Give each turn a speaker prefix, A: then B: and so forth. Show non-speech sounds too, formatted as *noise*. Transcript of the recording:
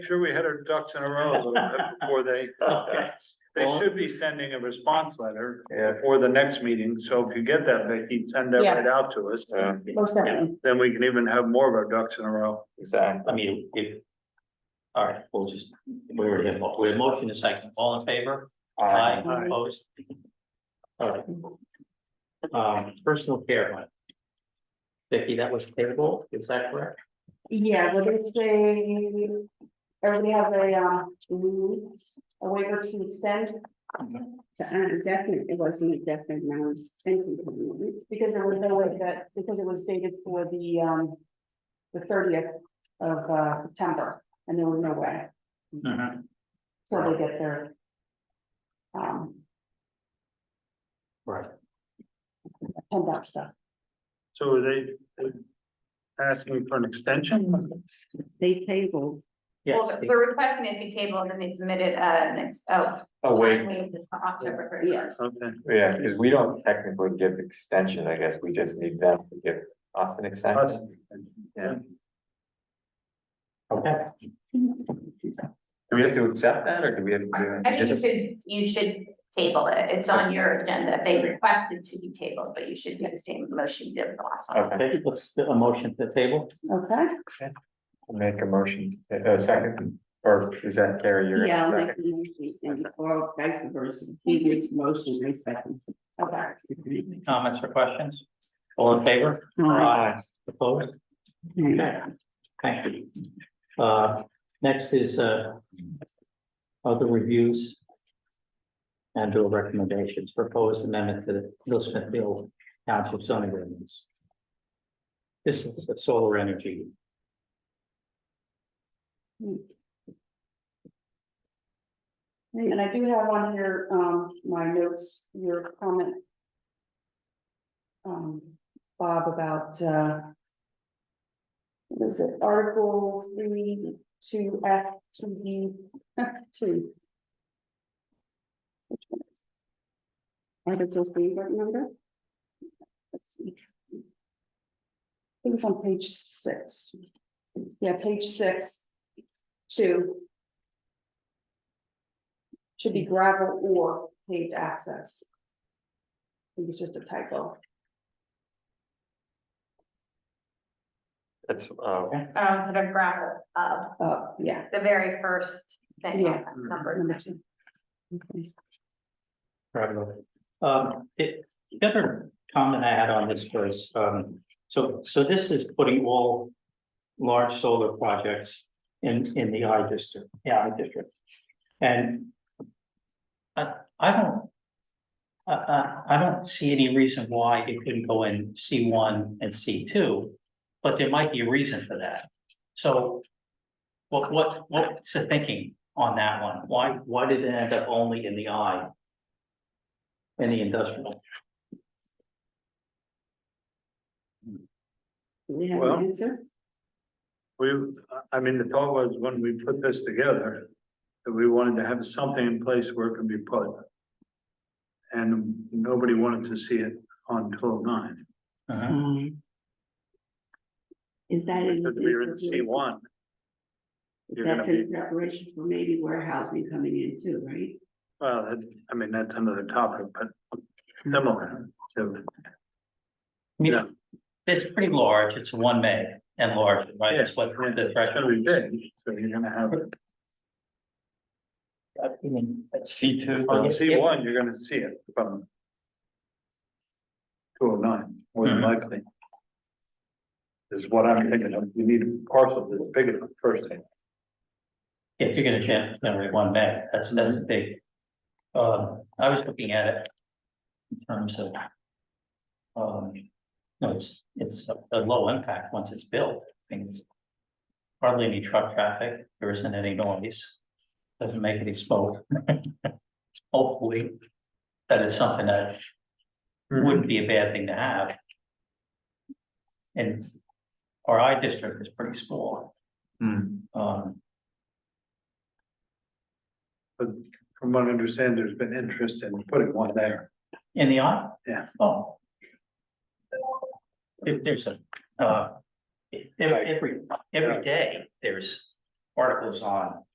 A: sure we had our ducks in a row a little
B: *laughs*
A: bit before they, they should be sending a response letter
B: Yeah.
A: for the next meeting, so if you get that, Vicky, send that
C: Yeah.
A: right out to us.
D: uh,
B: Yeah.
C: Most definitely.
A: Then we can even have more of our ducks in a row.
B: Exactly.
D: I mean, if. All right, we'll just, we already have, we have motion and second, all in favor? Aye,
C: Aye.
D: opposed? All right. Um, personal care. one. Vicky, that was table, is that correct?
C: Yeah, but it's a, everybody has a, um, mm, a waiver to extend.
E: So uh, definite, it wasn't definite, now it's thinking.
C: Because there was no way that, because it was dated for the, um, the thirtieth of, uh, September, and there was no way, till they get their. Um,
D: Right.
C: and that stuff,
A: So are they they asking for an extension?
E: They tabled,
F: Well,
D: Yes,
F: we're requesting it be tabled and they submitted uh next, oh.
B: Oh, wait,
F: October thirty first.
A: Okay,
B: yeah, because we don't technically give extension, I guess, we just need them to give us an
A: us.
B: extension. Yeah.
D: okay,
B: Do we have to accept that, or do we have to?
F: I think you
B: do
F: should, you should table it. It's on your agenda. They requested to be tabled, but you should do the same motion you did with the last one.
B: Okay,
D: okay, let's, do a motion to the table,
C: okay?
B: make a motion, a second, or is that Carrie, you're?
E: yeah, I'll make the motion, and or vice versa, he makes the motion, I second.
C: Okay.
D: comments or questions? All in favor?
E: Aye.
D: Opposed?
E: Okay.
D: Okay, thank you. Uh, next is, uh, other reviews and or recommendations, proposed amendment to the Middle Smithfield Township zoning ordinance. This is the solar energy.
C: And I do have on here, um, my notes, your comment. Um, Bob about, uh. What is it, article three, two F, two D, two,
E: Article three, what number?
C: let's see. I think it's on page six. Yeah, page six. Two. Should be gravel or paved access. I think it's just a typo.
B: That's, uh,
F: Uh, instead of gravel, uh,
C: Uh, yeah,
F: the very first thing
C: Yeah.
F: on that number.
C: number two.
D: Probably. Um, it, the other comment I had on this was, um, so, so this is putting all large solar projects in, in the I district, yeah, I district. And I, I don't, I, I, I don't see any reason why it couldn't go in C one and C two, but there might be a reason for that. So what, what, what's the thinking on that one? Why, why did it end up only in the I? Any industrial.
E: Do we have
A: Well-
E: an answer?
A: We, I mean, the thought was when we put this together, that we wanted to have something in place where it can be put. And nobody wanted to see it on twelve nine,
D: Uh-huh.
E: Um, Is that? in-
A: because we were in C one. You're gonna
E: That's
A: be,
E: in preparation for maybe warehousing coming in too, right?
A: well, that, I mean, that's another topic, but similar to,
D: I mean,
A: Yeah.
D: It's pretty large, it's one meg and large, right, that's what
A: and
D: the
A: it's gonna
D: threshold.
A: be big, so you're gonna have,
D: I mean, it's-
B: C two.
A: on C one, you're gonna see it from two oh nine, more than
D: Mhm.
A: likely. Is what I'm thinking of, you need a parcel that's big enough first thing.
D: If you're gonna gen- generate one meg, that's, that's a big. Uh, I was looking at it. In terms of. Um, no, it's, it's a- a low impact once it's built, things. Hardly any truck traffic, there isn't any noise. Doesn't make any smoke. *laughs* Hopefully. That is something that
A: Mm-hmm.
D: wouldn't be a bad thing to have. And our I district is pretty small.
B: Hmm.
D: Um,
A: But from what I understand, there's been interest in putting one there.
D: in the eye?
A: Yeah.
D: Oh. There- there's a, uh, e- every, every day, there's articles on